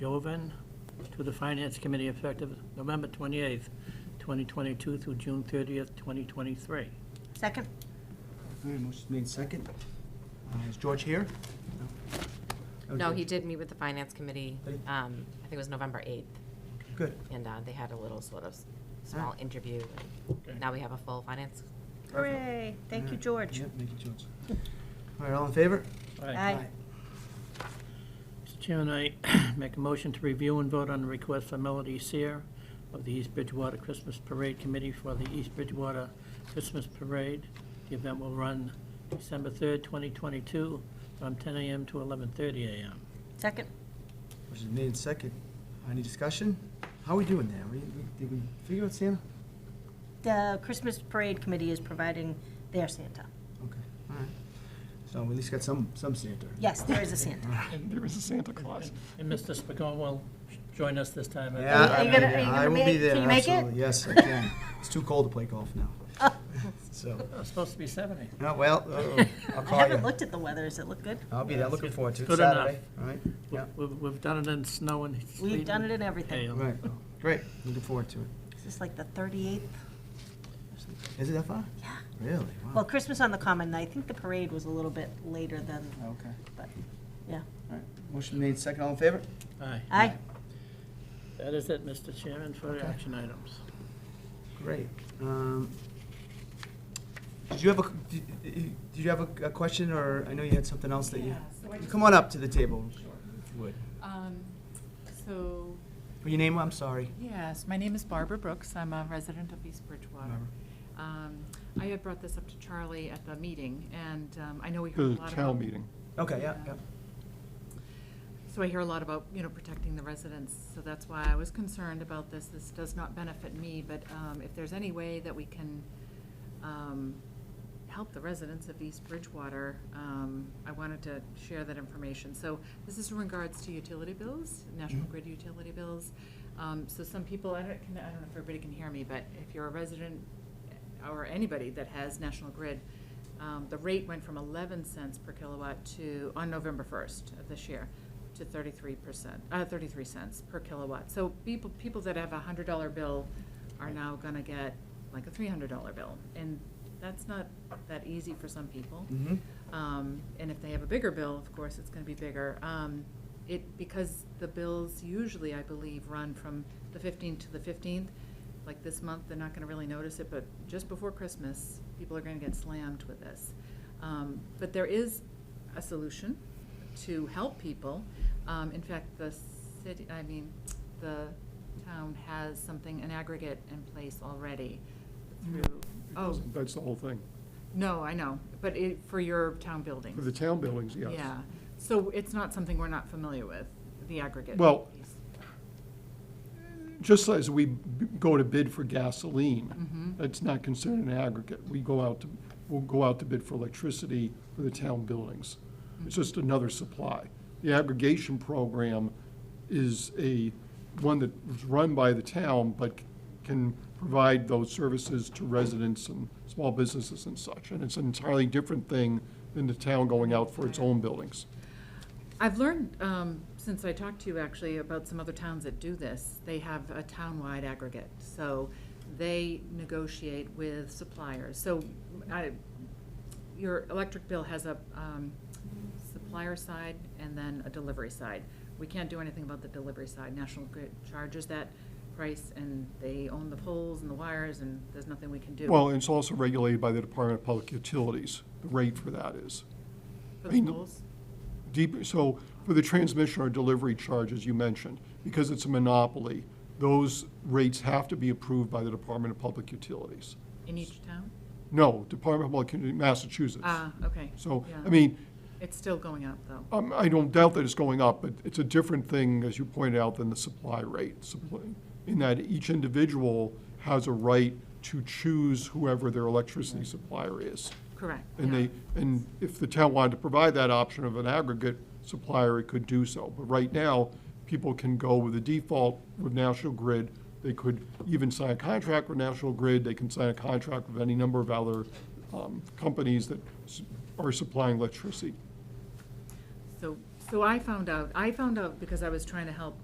Jovan to the Finance Committee effective November 28th, 2022 through June 30th, 2023. Second? All right, motion's made second. Uh, Is George here? No. Oh, No, Okay, he did meet with the finance committee, Hey. um, I think it was November 8th, Good. and uh, they had a little sort of s- small interview. Okay. and Now we have a full finance Hooray. Thank you, George. Yep, thank you, George. All right, all in favor? Aye. Mr. Chairman, I make a motion to review and vote on the request for Melody Seer of the East Bridgewater Christmas Parade Committee for the East Bridgewater Christmas Parade. The event will run December 3rd, 2022, from 10 a.m. to 11:30 a.m. Second? Motion's made second. Any discussion? How are we doing there? We- we- Did we figure out Santa? The Christmas Parade Committee is providing their Santa. Okay, all right. So we at least got some, some Santa. Yes, there is a Santa. And there is a Santa Claus. And Mr. Spigot will join us this time. I Yeah, Are you- are you I- gonna- are you I gonna will make- be can there, you make it? Oh. absolutely. Yes, I can. It's too cold to play golf now. So, think. It's Uh, supposed to be 70. oh, well, uh-oh, I'll I call haven't you. looked at the weather. Does it look good? I'll be there, looking forward to it. Good enough. Saturday, All right, yeah, We've, we've done it in snow and sleet. We've done it in hail. everything. all right, great, looking forward to it. Is this like the 38th? Is it that far? Yeah. Really? Well, Wow. Christmas on the Common, I think the parade was a little bit later than, Oh, Okay, but, yeah. all right. Motion made second, all in favor? Aye. Aye. That is it, Mr. Chairman, for the action items. Great. Um, Did you have a, did did you have a- a question, or I know you had something else that you, Yeah, so I just- come on up to the table. if you would. Um, So, Well, Your name, I'm sorry. yes, my name is Barbara Brooks. I'm a resident of East Bridgewater. Barbara. Um, I had brought this up to Charlie at the meeting, and um, I know we heard a The lot about. town meeting. Okay, yeah, yeah. So I hear a lot about, you know, protecting the residents, so that's why I was concerned about this. This does not benefit me, but um, if there's any way that we can um, help the residents of East Bridgewater, um, I wanted to share that information. So this is in regards to utility bills, national grid utility bills. Um, So some people, I don't, can- I don't know if everybody can hear me, but if you're a resident or anybody that has National Grid, um, the rate went from 11 cents per kilowatt to, on November 1st of this year, to 33 percent, uh, 33 cents per kilowatt. So people, people that have a $100 bill are now gonna get like a $300 bill, and that's not that easy for some people. Mm-hmm. Um, and if they have a bigger bill, of course, it's gonna be bigger. Um, it, because the bills usually, I believe, run from the fifteenth to the fifteenth, like this month, they're not gonna really notice it, but just before Christmas, people are gonna get slammed with this. Um, but there is a solution to help people. Um, in fact, the city, I mean, the town has something, an aggregate in place already Mm-hmm. through, oh, That's the whole thing. no, I know, but it, for your town buildings. For the town buildings, yes. Yeah, so it's not something we're not familiar with, the aggregate. Well- piece. Just as we b- go to bid for Mm-hmm. gasoline, that's not considered an aggregate. We go out to, we'll go out to bid for electricity for the town buildings. It's just Mm-hmm. another supply. The aggregation program is a, one that was run by the town, but c- can provide those services to residents and small businesses and such. And it's an entirely different thing than the town going out for its own buildings. I've learned, um, since I talked to you actually about some other towns that do this, they have a town-wide aggregate. So they negotiate with suppliers. So I, your electric bill has a, um, supplier side and then a delivery side. We can't do anything about the delivery side. National Grid charges that price and they own the poles and the wires and there's nothing we can do. Well, and it's also regulated by the Department of Public Utilities, the rate for that is. For I the mean, poles. Deep, so for the transmission or delivery charges you mentioned, because it's a monopoly, those rates have to be approved by the Department of Public Utilities. In each town? No, Department of Public, Uti- Massachusetts. Ah, okay. So, Yeah. I mean, It's still going up, though. um, I don't doubt that it's going up, but it's a different thing, as you pointed out, than the supply rate. Supply, in that each individual has a right to choose whoever their electricity Mm-hmm. supplier is. Correct. And yeah. they, and if the town wanted to provide that option of an aggregate supplier, it could do so. But right now, people can go with the default with National Grid. They could even sign a contract with National Grid. They can sign a contract with any number of other um, companies that s- are supplying electricity. So, so I found out, I found out because I was trying to help